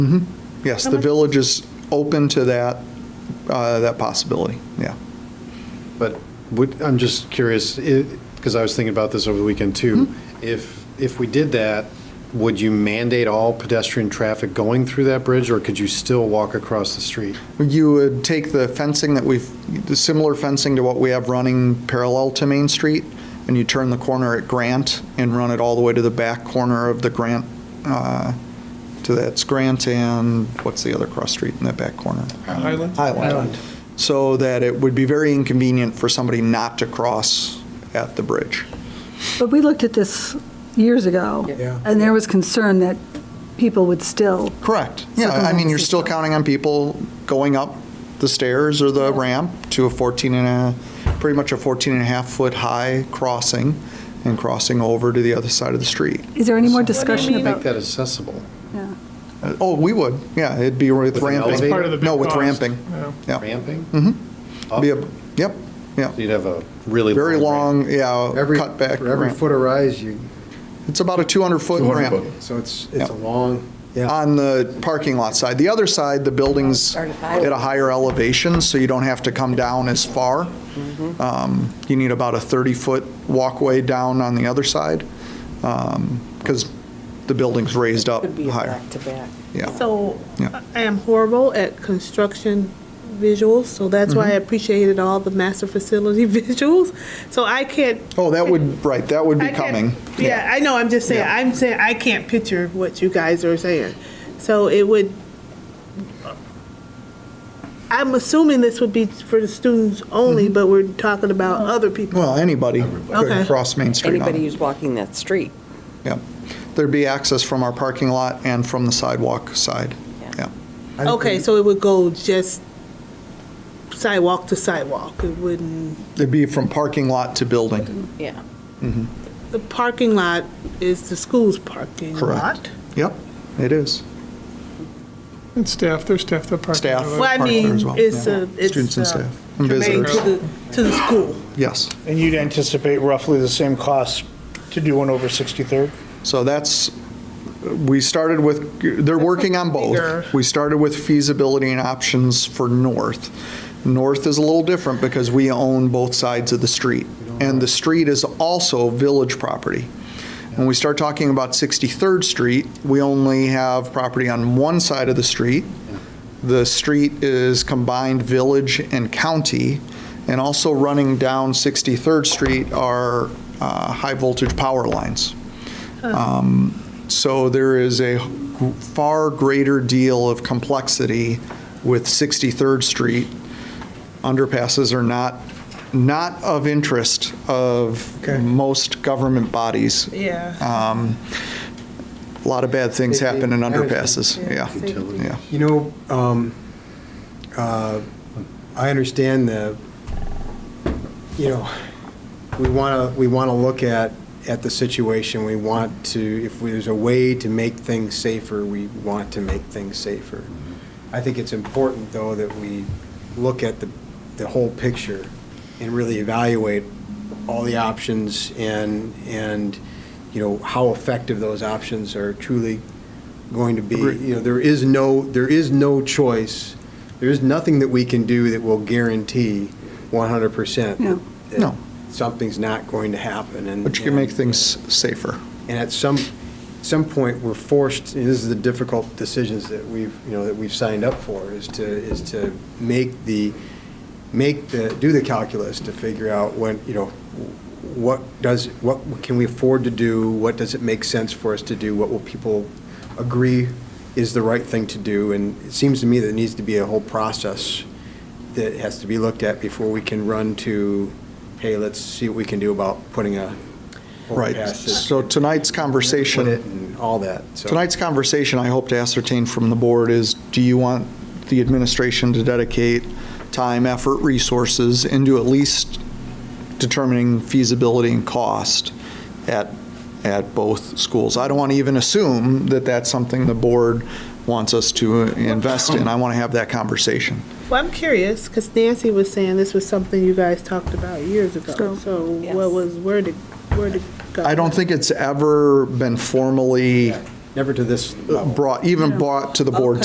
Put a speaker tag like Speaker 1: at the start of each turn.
Speaker 1: Mm-hmm. Yes,
Speaker 2: How
Speaker 1: the
Speaker 2: much-
Speaker 1: village is open to that, uh, that possibility, yeah.
Speaker 3: But would, I'm just curious, because I was thinking about this over the weekend too.
Speaker 1: Mm-hmm.
Speaker 3: If, if we did that, would you mandate all pedestrian traffic going through that bridge, or could you still walk across the street?
Speaker 1: You would take the fencing that we've, the similar fencing to what we have running parallel to Main Street, and you turn the corner at Grant and run it all the way to the back corner of the Grant, uh, to that's Grant and, what's the other cross street in that back corner?
Speaker 4: Highland?
Speaker 1: Highland. So that it would be very inconvenient for somebody not to cross at the bridge.
Speaker 2: But we looked at this years ago.
Speaker 5: Yeah.
Speaker 2: And there was concern that people would still,
Speaker 1: Correct. Yeah, I mean, you're still counting on people going up the stairs or the ramp to a 14 and a, pretty much a 14 and a half foot high crossing and crossing over to the other side of the street.
Speaker 2: is there any more discussion
Speaker 5: mean?
Speaker 3: Make
Speaker 2: about?
Speaker 3: that accessible,
Speaker 2: yeah.
Speaker 1: Uh, Oh, we would, yeah, it'd be with
Speaker 3: With an
Speaker 1: ramping.
Speaker 3: elevator? That's
Speaker 4: part of the big
Speaker 1: No, with
Speaker 4: cost,
Speaker 1: ramping,
Speaker 4: yeah.
Speaker 1: yeah.
Speaker 3: ramping?
Speaker 1: Be
Speaker 3: Mm-hmm.
Speaker 1: a- Yep, yeah,
Speaker 3: You'd have a really.
Speaker 1: very
Speaker 3: ramp.
Speaker 1: long, yeah,
Speaker 5: Every,
Speaker 1: cutback.
Speaker 5: for every
Speaker 1: ramp.
Speaker 5: foot of rise, you,
Speaker 1: It's about a 200 foot ramp
Speaker 5: so it's,
Speaker 1: Yeah.
Speaker 5: it's a long, yeah.
Speaker 1: on the parking lot side. The other side, the building's
Speaker 6: Start at five.
Speaker 1: at a higher elevation, so you don't have to come down as far.
Speaker 6: Mm-hmm.
Speaker 1: Um, You need about a 30-foot walkway down on the other side, because the building's raised up
Speaker 6: Could be a
Speaker 1: higher.
Speaker 6: back-to-back.
Speaker 1: Yeah.
Speaker 7: So
Speaker 1: Yeah.
Speaker 7: I am horrible at construction visuals, so that's why I
Speaker 1: Mm-hmm.
Speaker 7: appreciated all the master facility visuals. So I can't.
Speaker 1: Oh, that would, right, that would be
Speaker 7: I can't-
Speaker 1: coming.
Speaker 7: Yeah, I know, I'm just saying,
Speaker 1: Yeah.
Speaker 7: I'm saying, I can't picture what you guys are saying. So it would, I'm assuming this would be for the students only,
Speaker 1: Mm-hmm.
Speaker 7: but we're talking about other people.
Speaker 1: Well, anybody could
Speaker 7: Okay.
Speaker 1: cross Main Street on
Speaker 6: Anybody
Speaker 1: it.
Speaker 6: who's walking that street.
Speaker 1: Yep. There'd be access from our parking lot and from the sidewalk side.
Speaker 6: Yeah.
Speaker 1: Yeah.
Speaker 5: I don't
Speaker 7: Okay,
Speaker 5: think-
Speaker 7: so it would go just sidewalk to sidewalk, it wouldn't.
Speaker 1: It'd be from parking lot to building.
Speaker 6: Yeah.
Speaker 7: The parking lot is the school's parking
Speaker 1: Correct.
Speaker 7: lot.
Speaker 1: Yep, it is.
Speaker 4: And staff, there's staff that park.
Speaker 1: Staff.
Speaker 4: there.
Speaker 7: Well, I
Speaker 1: Park there
Speaker 7: mean,
Speaker 1: as well,
Speaker 7: it's
Speaker 1: yeah.
Speaker 7: a, it's.
Speaker 1: Students and
Speaker 7: uh,
Speaker 1: staff and
Speaker 7: germane
Speaker 1: visitors.
Speaker 7: To the, to the school.
Speaker 1: Yes.
Speaker 8: And you'd anticipate roughly the same cost to do one over 63rd?
Speaker 1: So that's, we started with, they're working on
Speaker 7: Bigger.
Speaker 1: both. We started with feasibility and options for North. North is a little different because we own both sides of the street. And the street is also village property. When we start talking about 63rd Street, we only have property on one side of the street. The street is combined village and county. And also running down 63rd Street are uh, high-voltage power lines. Um, So there is a g- far greater deal of complexity with 63rd Street. Underpasses are not, not of interest of most government bodies.
Speaker 7: Yeah.
Speaker 1: Um, A lot of bad things happen in
Speaker 5: Safety.
Speaker 1: underpasses, yeah.
Speaker 3: Utilities.
Speaker 1: Yeah.
Speaker 5: You know, um, uh, I understand the, you know, we want to, we want to look at, at the situation. We want to, if there's a way to make things safer, we want to make things safer. I think it's important, though, that we look at the, the whole picture and really evaluate all the options and, and, you know, how effective those options are truly going to be. You know, there is no, there is no choice, there is nothing that we can do that will guarantee 100%.
Speaker 2: No.
Speaker 5: that
Speaker 1: No.
Speaker 5: Something's not going to happen, and.
Speaker 1: But you can make things safer.
Speaker 5: And at some, some point, we're forced, and this is the difficult decisions that we've, you know, that we've signed up for, is to, is to make the, make the, do the calculus to figure out when, you know, what does, what can we afford to do? What does it make sense for us to do? What will people agree is the right thing to do? And it seems to me that there needs to be a whole process that has to be looked at before we can run to, hey, let's see what we can do about putting a
Speaker 1: Right.
Speaker 5: overpass that-
Speaker 1: So tonight's conversation.
Speaker 5: put it and all that. so.
Speaker 1: Tonight's conversation, I hope to ascertain from the board is, do you want the administration to dedicate time, effort, resources into at least determining feasibility and cost at, at both schools? I don't want to even assume that that's something the board wants us to invest in. I want to have that conversation.
Speaker 7: Well, I'm curious, because Nancy was saying this was something you guys talked about years ago.
Speaker 2: Go.
Speaker 7: So
Speaker 6: Yes.
Speaker 7: what was, where did, where did?
Speaker 1: I don't think it's ever been formally
Speaker 5: never to this level.
Speaker 1: brought, even brought to the board